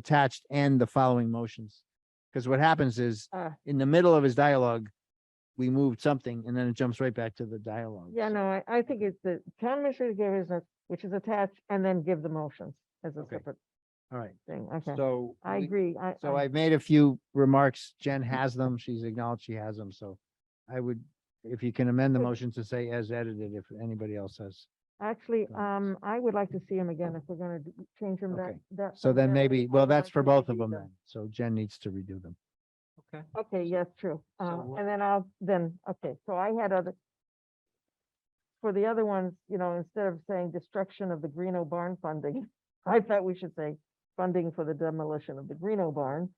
attached and the following motions. Because what happens is, Ah. in the middle of his dialogue, we moved something and then it jumps right back to the dialogue. Yeah, no, I, I think it's the town administrator give his, notes, which is attached, and then give the motions as a Okay. separate All right, thing, okay. so. I we- agree, I, So I, Mm-hmm. I've made a few remarks. Jen has them. She's acknowledged she has them, so I would, if you can amend the Good. motion to say as edited, if anybody else has. actually, go ahead. um, I would like to see him again if we're gonna d- change him that, Okay. that. So then that maybe, way, I well, would that's like for to both of redo them then. So Jen needs to redo them. Okay, Okay, yes, true, uh, what- and then I'll, then, okay, so I had other. For the other ones, you know, instead of saying destruction of the Greeno barn funding, I thought we should say funding for the demolition of the Greeno barn.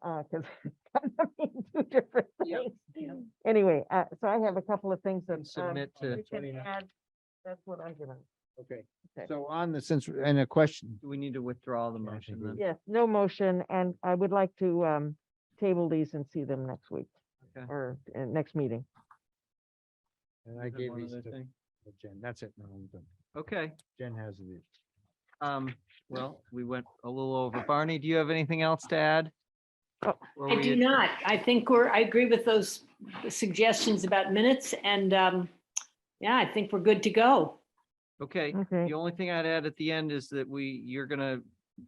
Uh, cause I mean, two different Yep, things. Anyway, uh, so I have a couple of things that. and submit um, to, we can add. That's what I'm gonna, Okay. Okay. So on the, since, and a question, do we need to withdraw the Yeah, I motion think we- then? yes, no motion, and I would like to, um, table these and see them next week Okay. or uh, next meeting. and I Is there gave one these other to thing? Jen. That's it. No, I'm done. Okay, Jen has these. um, well, we went a little over. Barney, do you have anything else to add? Oh, Or I we do ad- not. I think we're, I agree with those suggestions about minutes and um, yeah, I think we're good to go. Okay, Okay, the only thing I'd add at the end is that we, you're gonna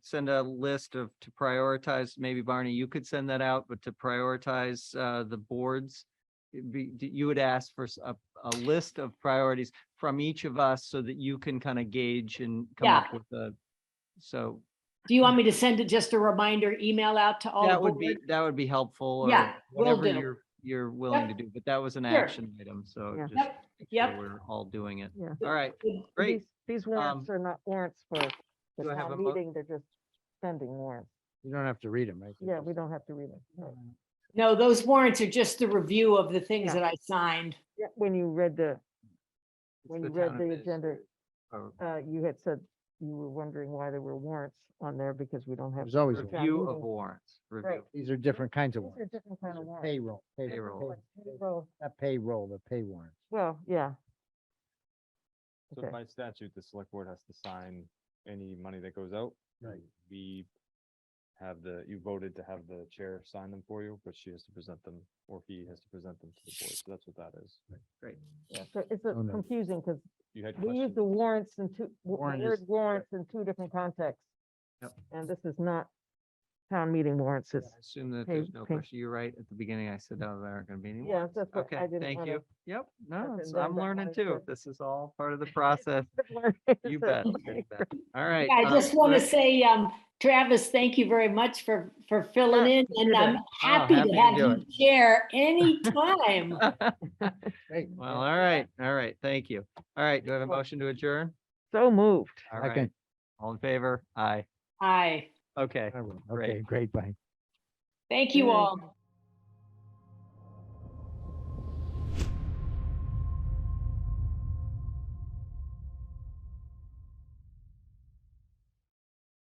send a list of, to prioritize, maybe Barney, you could send that out, but to prioritize, uh, the boards. it'd be- d- You would ask for s- a, a list of priorities from each of us so that you can kind of gauge and come Yeah. up with a, so Do you want me to send it just a reminder email out to all? That the would be, board? that would be helpful. or Yeah, will Whatever do. you're, you're willing to do, but that was an Sure. action item, so. Yeah. just Yep, make sure yep. We're all doing it. yeah. All right, Good. great. These- These warrants Um, are not warrants for the do I have a town mo- meeting, they're just spending warrants. You don't have to read them, right? They're Yeah, we just- don't have to read them. right. No, those warrants are just the review of the things Yeah. that I signed. Yeah, When you read the, It's when the you read town the administrator. agenda, Oh, uh, you had said you were wondering why there were warrants on there because we don't have. There's always, town warrants. Review of meeting. warrants, review. Right. these are different kinds of These are ones. different kind of warrants. Payroll. Payroll. pay- Well, Not payroll, the pay warrants. Well, yeah. So Okay. by statute, the select board has to sign any money that goes out. Right. We have the, you voted to have the chair sign them for you, but she has to present them, or he has to present them to the board. So that's what that is. yeah, So it's uh, Oh, no. confusing because You had we use questions. the warrants in two, w- Warrant the is- word warrants in two different contexts. Yep. And this is not town meeting warrants. I It's, Assume that pay- there's no pay- question. You're right. At the beginning, I said, oh, there aren't gonna be any yeah, warrants. that's what Okay, I didn't thank want you. Yep, no, That's it's- it, then I'm that learning one is too. good. This is all part of the process. to. You bet. you bet. All right. Yeah, I um, just want to let's- say, um, Travis, thank you very much for, for filling in and I'm happy Oh, happy to to have do you chair anytime. Great. Well, all right, all right, thank you. All right, do I have a motion to adjourn? So moved. All I right, can- all in favor? Aye. Hi, Okay. I will. Great. Okay, great, bye. thank you Yeah. all.